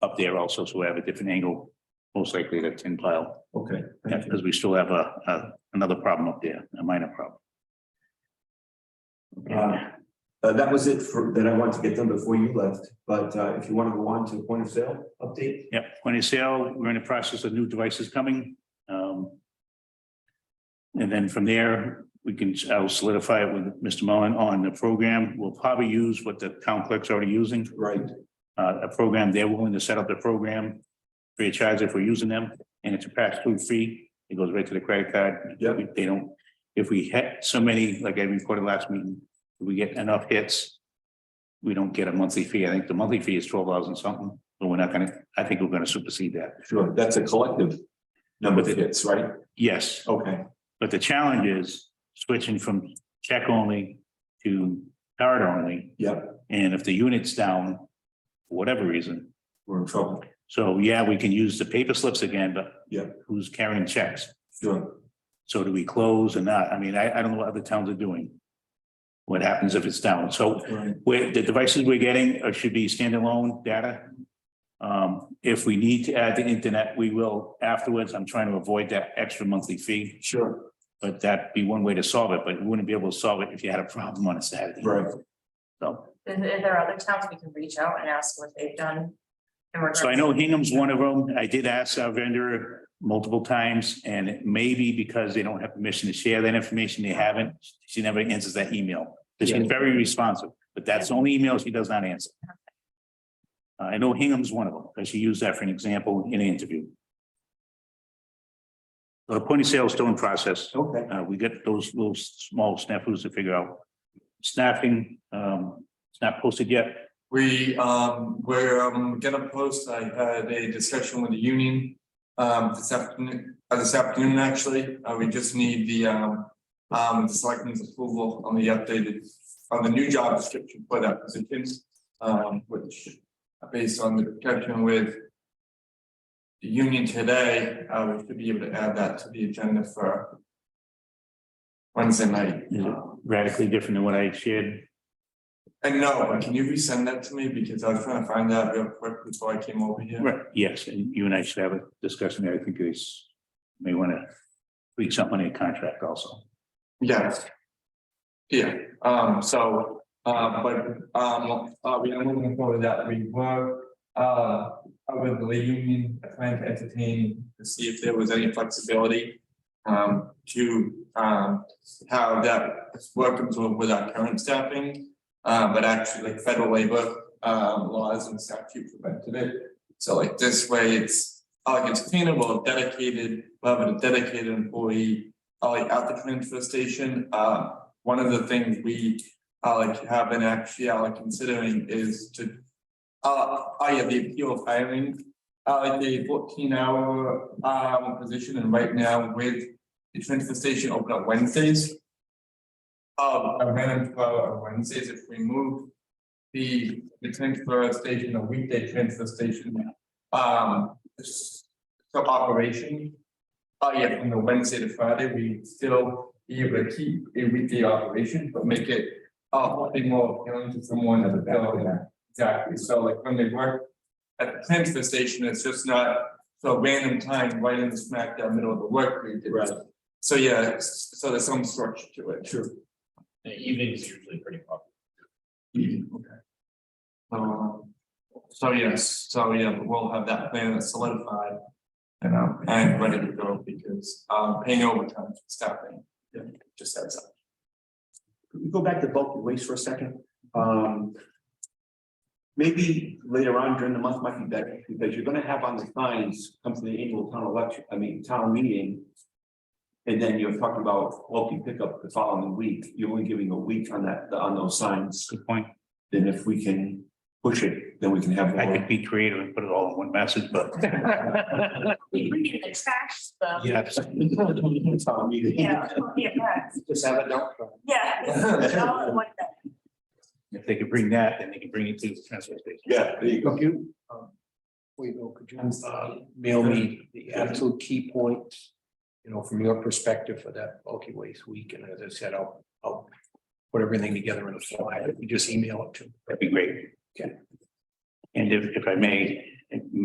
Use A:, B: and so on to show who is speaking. A: up there also, so we have a different angle, most likely the tin pile,
B: Okay, thank you.
A: because we still have a, a- another problem up there, a minor problem.
B: Uh, Uh, that was it for, that I wanted to get done before you left, but, uh, if you want to go on to the point of sale update?
A: Yep, point of sale, we're in the process of new devices coming. um, And then from there, we can, I'll solidify it with Mr. Mullen on the program. We'll probably use what the town clerk's already using,
B: Right,
A: uh, a program. They're willing to set up the program free of charge if we're using them, and it's a pass-through fee. It goes right to the credit card.
B: Yep.
A: We- They don't, if we hit so many, like I reported last meeting, if we get enough hits, we don't get a monthly fee. I think the monthly fee is twelve dollars and something, but we're not gonna, I think we're gonna supersede that.
B: sure, that's a collective number that hits, right?
A: Yes,
B: Okay,
A: but the challenge is switching from check only to card only,
B: yep,
A: and if the unit's down, for whatever reason,
B: we're in trouble,
A: So yeah, we can use the paper slips again, but.
B: Yeah.
A: Who's carrying checks?
B: sure,
A: So do we close or not? I mean, I, I don't know what other towns are doing. What happens if it's down? So
B: right,
A: where the devices we're getting uh, should be standalone data. Um, if we need to add the internet, we will afterwards. I'm trying to avoid that extra monthly fee.
B: sure,
A: But that'd be one way to solve it, but you wouldn't be able to solve it if you had a problem on a Saturday.
B: right.
A: So,
C: If, if there are other towns, we can reach out and ask what they've done. in regards-
A: so I know Hingham's one of them. I did ask our vendor multiple times, and it may be because they don't have permission to share that information, they haven't. She never answers that email, but she's very responsive, but that's the only email she does not answer. Uh, I know Hingham's one of them, because she used that for an example in an interview. The point of sale is still in process.
B: Okay,
A: Uh, we get those little small snafus to figure out. Snapping, um, it's not posted yet.
D: We, um, we're, um, gonna post, I had a discussion with the union, um, this afternoon, uh, this afternoon, actually, uh, we just need the, um. Um, the selectmen's approval on the updated, on the new job description for that position, um, which, uh, based on the discussion with. The union today, uh, we should be able to add that to the agenda for. Wednesday night.
A: Is it radically different than what I shared.
D: And no, can you resend that to me? Because I was trying to find out real quick before I came over here.
A: Right, yes, and you and I should have a discussion there. I think it's, may want to tweak something in a contract also.
D: Yes. Yeah, um, so, uh, but, um, uh, we are moving forward that we were, uh, with the union, trying to entertain to see if there was any flexibility. Um, to, um, how that worked with our current staffing, uh, but actually like federal labor, um, laws and statute prevented it. So like this way, it's, uh, like it's attainable, dedicated, we'll have a dedicated employee uh, like at the transfer station, uh, one of the things we, uh, like have been actually, uh, like considering is to. Uh, I have the appeal of hiring, uh, like a fourteen hour, um, position and right now with the transfer station open up Wednesdays. Um, I ran into, uh, Wednesdays if we move the, the transfer station, a weekday transfer station, um, s- to operation. Oh, yeah, from the Wednesday to Friday, we still be able to keep a weekday operation, but make it uh hopefully more appealing to someone at the Exactly, so like when they work at the transfer station, it's just not so random time right in the smack down middle of the work week. It's-
B: Right.
D: So yeah, s- so there's some structure to it. Sure.
E: The evening's usually pretty popular.
D: Okay. Um, so yes, so yeah, but we'll have that plan solidified. You know, and ready to go because um paying overtime for staffing, yeah, just adds up.
B: could we go back to bulky waste for a second? Um. Maybe later on during the month might be better, because you're gonna have on the signs, come to the annual town election, I mean, town meeting. And then you're talking about bulky pickup the following week, you're only giving a week on that, on those signs,
A: Good point.
B: then if we can push it, then we can have.
A: I
B: more.
A: could be creative and put it all in one message, but.
C: We can attach them.
A: Yes,
B: Town meeting.
C: Yeah, yeah, correct.
B: Just have a dump truck.
C: yeah. all in one thing.
A: if they could bring that, then they can bring it to the transfer station.
B: Yeah, there you go.
F: you. um, Wait, Bill, could you uh, mail me the absolute key points, you know, from your perspective for that bulky waste week? And as I said, I'll, I'll put everything together in a flyer. You just email it to me.
A: That'd be great.
F: Okay.
A: And if, if I may, and